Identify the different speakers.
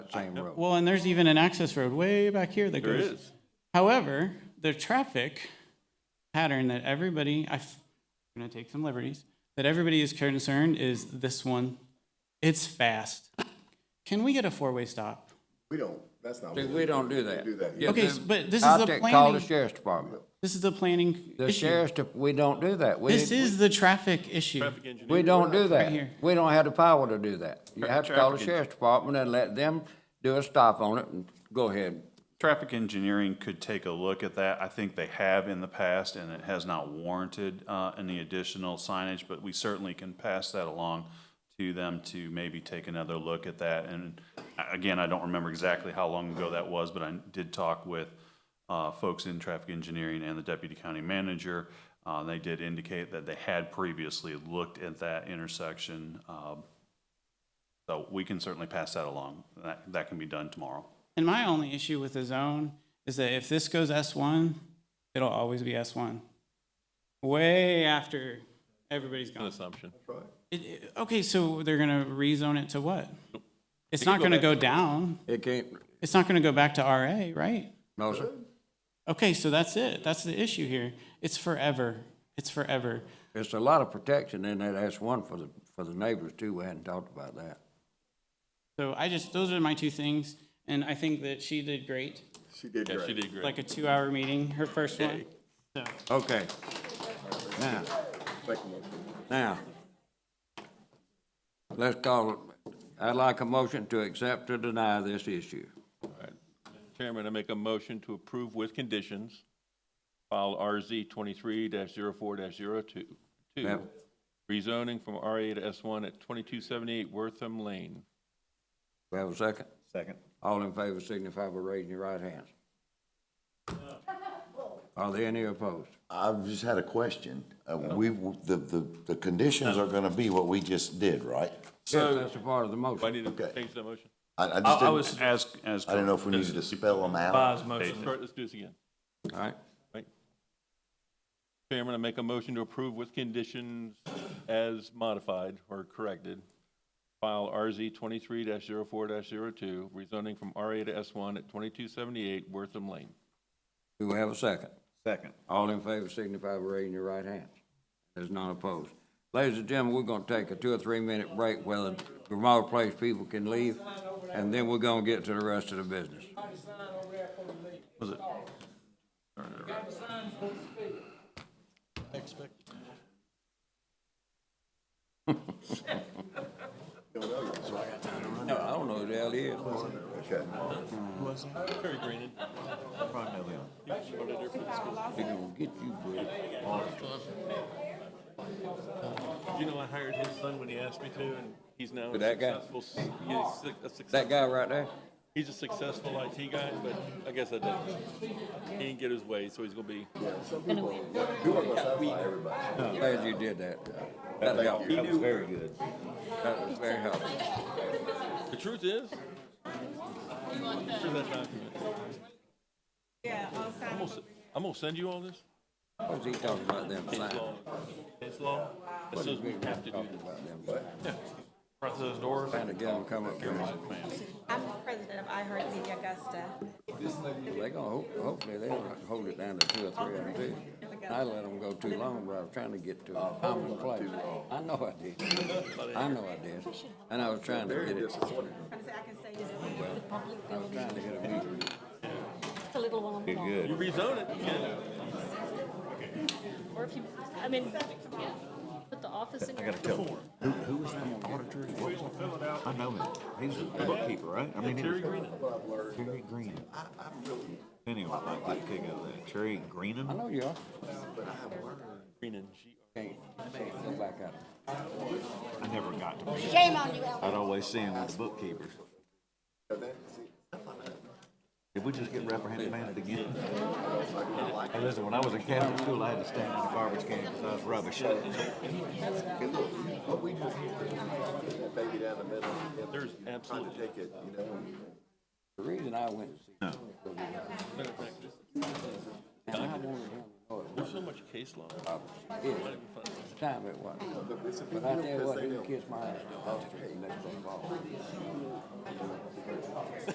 Speaker 1: same road.
Speaker 2: Well, and there's even an access road way back here that
Speaker 3: There
Speaker 2: goes.
Speaker 3: is.
Speaker 2: However, the traffic pattern that everybody, I f- I'm gonna take some liberties, that everybody is concerned is this one. It's fast. Can we get a four-way stop?
Speaker 4: We don't, that's not.
Speaker 1: See,
Speaker 4: what
Speaker 1: we don't do
Speaker 4: Do
Speaker 1: that.
Speaker 4: that.
Speaker 1: Yeah,
Speaker 2: Okay,
Speaker 1: then
Speaker 2: but this is
Speaker 1: out
Speaker 2: the
Speaker 1: there, Call the
Speaker 2: planning-
Speaker 1: sheriff's department.
Speaker 2: This is the planning
Speaker 1: The
Speaker 2: issue.
Speaker 1: sheriff's, de- we don't do that. We-
Speaker 2: This is the traffic issue.
Speaker 3: Traffic engineer.
Speaker 1: We don't do that.
Speaker 2: here.
Speaker 1: We don't have the power to do that. You have to call the
Speaker 3: Traffic.
Speaker 1: sheriff's department and let them do a stop on it and go ahead.
Speaker 3: Traffic engineering could take a look at that. I think they have in the past, and it has not warranted uh, any additional signage, but we certainly can pass that along to them to maybe take another look at that. And uh, again, I don't remember exactly how long ago that was, but I did talk with uh, folks in traffic engineering and the deputy county manager. Uh, They did indicate that they had previously looked at that intersection. um, So we can certainly pass that along. That That can be done tomorrow.
Speaker 2: And my only issue with the zone is that if this goes S1, it'll always be S1. Way after everybody's gone.
Speaker 5: assumption.
Speaker 2: It- it- Okay, so they're gonna rezone it to what? It's not gonna go down.
Speaker 1: It can't,
Speaker 2: It's not gonna go back to RA, right?
Speaker 1: no, sir.
Speaker 2: Okay, so that's it. That's the issue here. It's forever. It's forever.
Speaker 1: It's a lot of protection in that. That's one for the, for the neighbors too. We hadn't talked about that.
Speaker 2: So I just, those are my two things, and I think that she did great.
Speaker 4: She did
Speaker 5: Yeah, she
Speaker 4: great.
Speaker 5: did great.
Speaker 2: Like a two-hour meeting, her first one.
Speaker 1: Okay. Now,
Speaker 4: Thank you, Mark.
Speaker 1: now, let's call, it. I'd like a motion to accept or deny this issue.
Speaker 5: All right. Chairman, I make a motion to approve with conditions, file RZ twenty-three 4 2
Speaker 1: Ma'am.
Speaker 5: rezoning from RA to S one at twenty-two seventy-eight Wortham Lane.
Speaker 1: We have a second?
Speaker 3: Second.
Speaker 1: All in favor signify by raising your right hands. Are there any opposed?
Speaker 6: I've just had a question. Uh, we, the, the, the conditions are gonna be what we just did, right?
Speaker 1: Yes, that's a part of the
Speaker 5: Do I
Speaker 1: motion.
Speaker 5: need to
Speaker 6: Okay.
Speaker 5: change that motion?
Speaker 6: I, I
Speaker 3: I,
Speaker 6: just
Speaker 3: I was,
Speaker 6: didn't,
Speaker 3: as, as.
Speaker 6: I didn't know if we needed to spell them out.
Speaker 5: Let's start- let's do this again.
Speaker 1: All right,
Speaker 5: Right. Chairman, I make a motion to approve with conditions as modified or corrected. File RZ twenty-three 4 2 rezoning from RA to S one at twenty-two seventy-eight Wortham Lane.
Speaker 1: do we have a second?
Speaker 3: Second.
Speaker 1: All in favor signify by raising your right hands. There's none opposed. Ladies and gentlemen, we're gonna take a two or three minute break where the remote place people can leave, and then we're gonna get to the rest of the business. No, I don't know who the hell he is.
Speaker 4: Okay.
Speaker 1: He gonna get you, bud.
Speaker 5: You know, I hired his son when he asked me to, and he's now a
Speaker 1: That guy?
Speaker 5: successful, he's a
Speaker 1: That
Speaker 5: success-
Speaker 1: guy right there?
Speaker 5: he's a successful IT guy, but I guess I didn't. He didn't get his way, so he's gonna be,
Speaker 4: You are gonna satisfy everybody.
Speaker 1: Glad you did that. That helped. That was very good. That was very helpful.
Speaker 5: the truth is. Here's that document.
Speaker 7: Yeah, I'll sign
Speaker 5: I'm gonna s- I'm gonna send you all this.
Speaker 1: What's he talking about them
Speaker 5: It's
Speaker 1: signs?
Speaker 5: law. It's law. It says we have to do
Speaker 1: Talking
Speaker 5: this.
Speaker 1: about them signs.
Speaker 5: Front of those doors.
Speaker 1: Trying to get them to come up here.
Speaker 7: I'm the president of iHeartMedia Augusta.
Speaker 1: They gonna, hope- hopefully they don't hold it down to two or three of them too. I let them go too long, but I was trying to get to
Speaker 5: Oh,
Speaker 1: a common place. I know I did. I know I did. And I was trying to get it,
Speaker 7: I can say- I can say this is the public
Speaker 1: I was
Speaker 7: building.
Speaker 1: trying to get a meeting.
Speaker 7: It's a little one on
Speaker 5: You
Speaker 7: one.
Speaker 5: rezone it, you can.
Speaker 8: Or if you, I mean, yeah, put the office in. I gotta tell
Speaker 9: Who was that auditor? What was that? I know him. He was a bookkeeper, right? I mean, he was. Terry Green. I, I really. Anyway, I like to pick up that. Terry
Speaker 1: I
Speaker 9: Greenham?
Speaker 1: know you are.
Speaker 5: Green and G.
Speaker 1: Can't, can't go back out.
Speaker 9: I never got to. pick-
Speaker 8: Shame on you, Ellen.
Speaker 9: I'd always see him with the bookkeepers. Did we just get reprimanded again? Hey, listen, when I was in Catholic school, I had to stand in the garbage can because I was rubbish.
Speaker 4: What we just, that baby down the middle, and
Speaker 5: There's
Speaker 4: trying
Speaker 5: absolutely.
Speaker 4: to take it, you know, and
Speaker 1: The reason I went to see
Speaker 5: Matter of fact, this-
Speaker 1: And I wanted him to know it
Speaker 5: There's so much case law.
Speaker 1: It's time it was. But I tell you what, he kissed my ass. Next thing, fall.